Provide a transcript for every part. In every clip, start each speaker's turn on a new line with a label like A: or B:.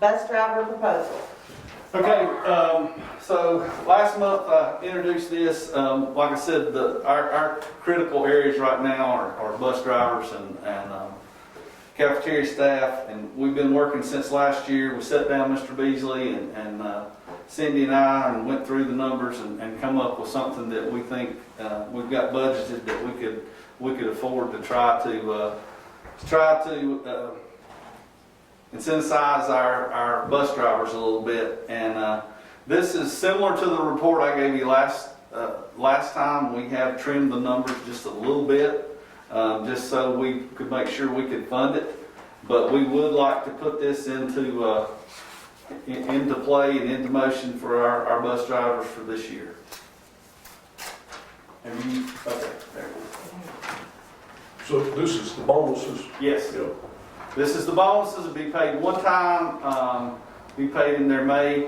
A: bus driver proposal.
B: Okay, um, so last month I introduced this, um, like I said, the, our, our critical areas right now are, are bus drivers and, and, um, cafeteria staff, and we've been working since last year. We sat down, Mr. Beasley and, and, uh, Cindy and I, and went through the numbers and, and come up with something that we think, uh, we've got budgeted that we could, we could afford to try to, uh, to try to, uh, incentivize our, our bus drivers a little bit. And uh, this is similar to the report I gave you last, uh, last time. We have trimmed the numbers just a little bit, um, just so we could make sure we could fund it. But we would like to put this into, uh, in- into play and into motion for our, our bus drivers for this year. Have you, okay, there.
C: So this is the bonuses?
B: Yes. This is the bonuses, will be paid one time, um, be paid in their May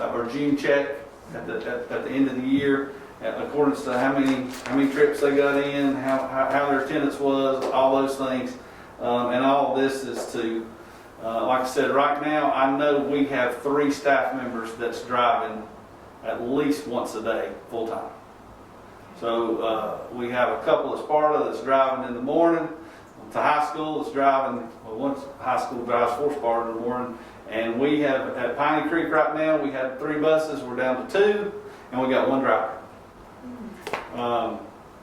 B: uh, or June check at the, at, at the end of the year, at accordance to how many, how many trips they got in, how, how, how their attendance was, all those things. Um, and all this is to, uh, like I said, right now, I know we have three staff members that's driving at least once a day, full-time. So, uh, we have a couple of Sparta that's driving in the morning, to high school is driving, well, once high school drives four bar in the morning. And we have, at Piney Creek right now, we have three buses, we're down to two, and we got one driver. Um,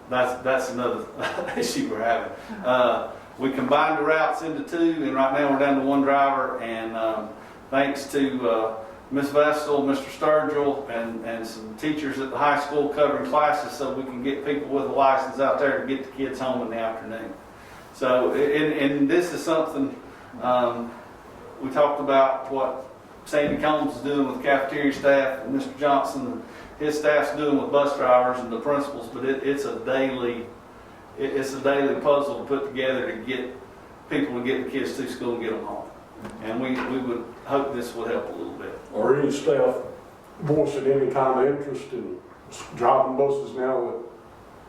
B: that's, that's another issue we're having. Uh, we combined the routes into two, and right now we're down to one driver, and, um, thanks to, uh, Ms. Vestal, Mr. Sturgill, and, and some teachers at the high school covering classes, so we can get people with a license out there to get the kids home in the afternoon. So, and, and this is something, um, we talked about what Sandy Combs is doing with cafeteria staff, and Mr. Johnson, his staff's doing with bus drivers and the principals, but it, it's a daily, it, it's a daily puzzle to put together to get people to get the kids to school and get them home. And we, we would hope this would help a little bit.
C: Or any staff voicing any kind of interest in s- driving buses now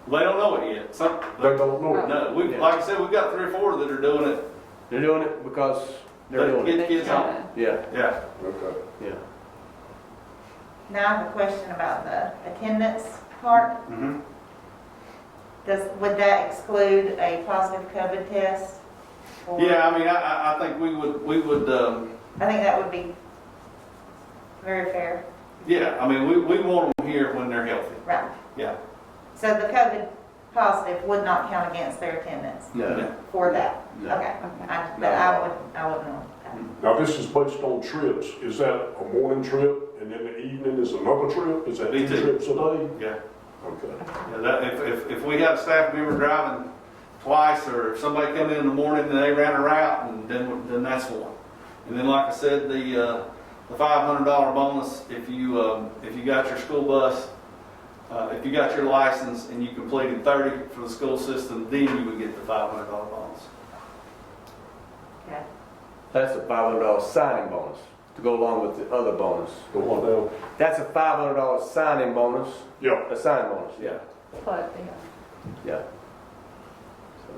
B: They don't know it yet, some,
C: that they don't know?
B: no, we, like I said, we've got three or four that are doing it,
D: They're doing it because they're
B: They
D: doing it.
B: Get kids home.
D: Yeah,
B: yeah.
C: Okay.
D: yeah.
A: Now I have a question about the attendance part.
B: Mm-hmm.
A: Does, would that exclude a positive COVID test? Or-
B: Yeah, I mean, I, I, I think we would, we would, um,
A: I think that would be very fair,
B: Yeah, I mean, we, we want them here when they're healthy.
A: right?
B: Yeah.
A: So the COVID positive would not count against their attendance
D: No,
A: for that?
D: No.
A: Okay, I,
D: No.
A: but I would, I wouldn't want that.
C: Now, this is based on trips. Is that a morning trip and then the evening is another trip? Is that
B: Me
C: two
B: too.
C: trips a day?
B: Yeah.
C: Okay.
B: Yeah, that, if, if, if we have a staff member driving twice, or if somebody come in in the morning and they ran a route, and then, we- then that's one. And then, like I said, the, uh, the five hundred dollar bonus, if you, um, if you got your school bus, uh, if you got your license and you completed thirty for the school system, then you would get the five hundred dollar bonus.
A: Okay.
D: that's a five hundred dollar signing bonus to go along with the other bonus.
C: The one down?
D: That's a five hundred dollar signing bonus,
C: Yeah.
D: a sign bonus, yeah,
E: But,
D: yeah. So.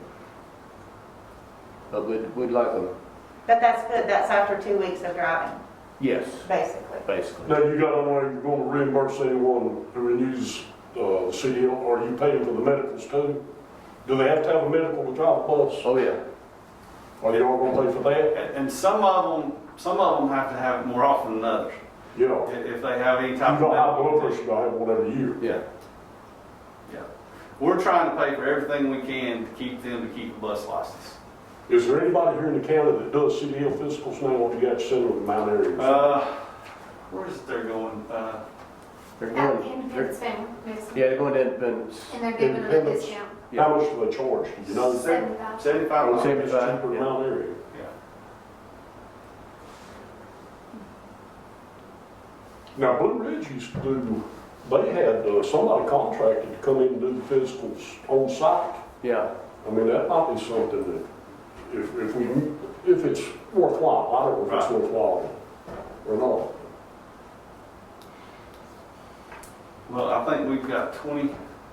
D: But we'd, we'd like them,
A: But that's good, that's after two weeks of driving,
D: yes,
A: basically.
D: basically.
C: Now, you got on there, you're gonna reimburse anyone who renews, uh, CDL, or you paying for the medicals too? Do they have to have a medical to drive a bus?
D: Oh, yeah,
C: Are y'all gonna pay for that?
B: And, and some of them, some of them have to have it more often than others,
C: Yeah.
B: if, if they have any
C: You
B: type of.
C: don't have
B: medical
C: blood
B: condition.
C: pressure, I have one every year.
D: yeah,
B: We're trying to pay for everything we can to keep them to keep a bus license.
C: Is there anybody here in the county that does CDL physicals now, or you got to send them to Mount Airy?
B: Uh, where is it they're going? Uh,
D: they're
E: At
D: going, they're,
E: Independence Family Medicine.
D: yeah, they're going to Independence,
E: And they're giving them a
C: Independence.
E: discount,
D: yeah.
C: How much do they charge, Do you know?
E: seventy-five.
B: seventy-five
C: It's
B: miles.
D: Seventy- Seventy-five,
C: cheaper in
D: yeah.
C: Mount Airy.
B: Yeah.
C: Now, Blue Ridge used to do, they had uh, somebody contracted to come in and do the physicals on site.
D: yeah,
C: I mean, that might be something that, if, if we, if it's worthwhile, I don't know if it's
B: Right.
C: worthwhile or not.
B: Well, I think we've got twenty,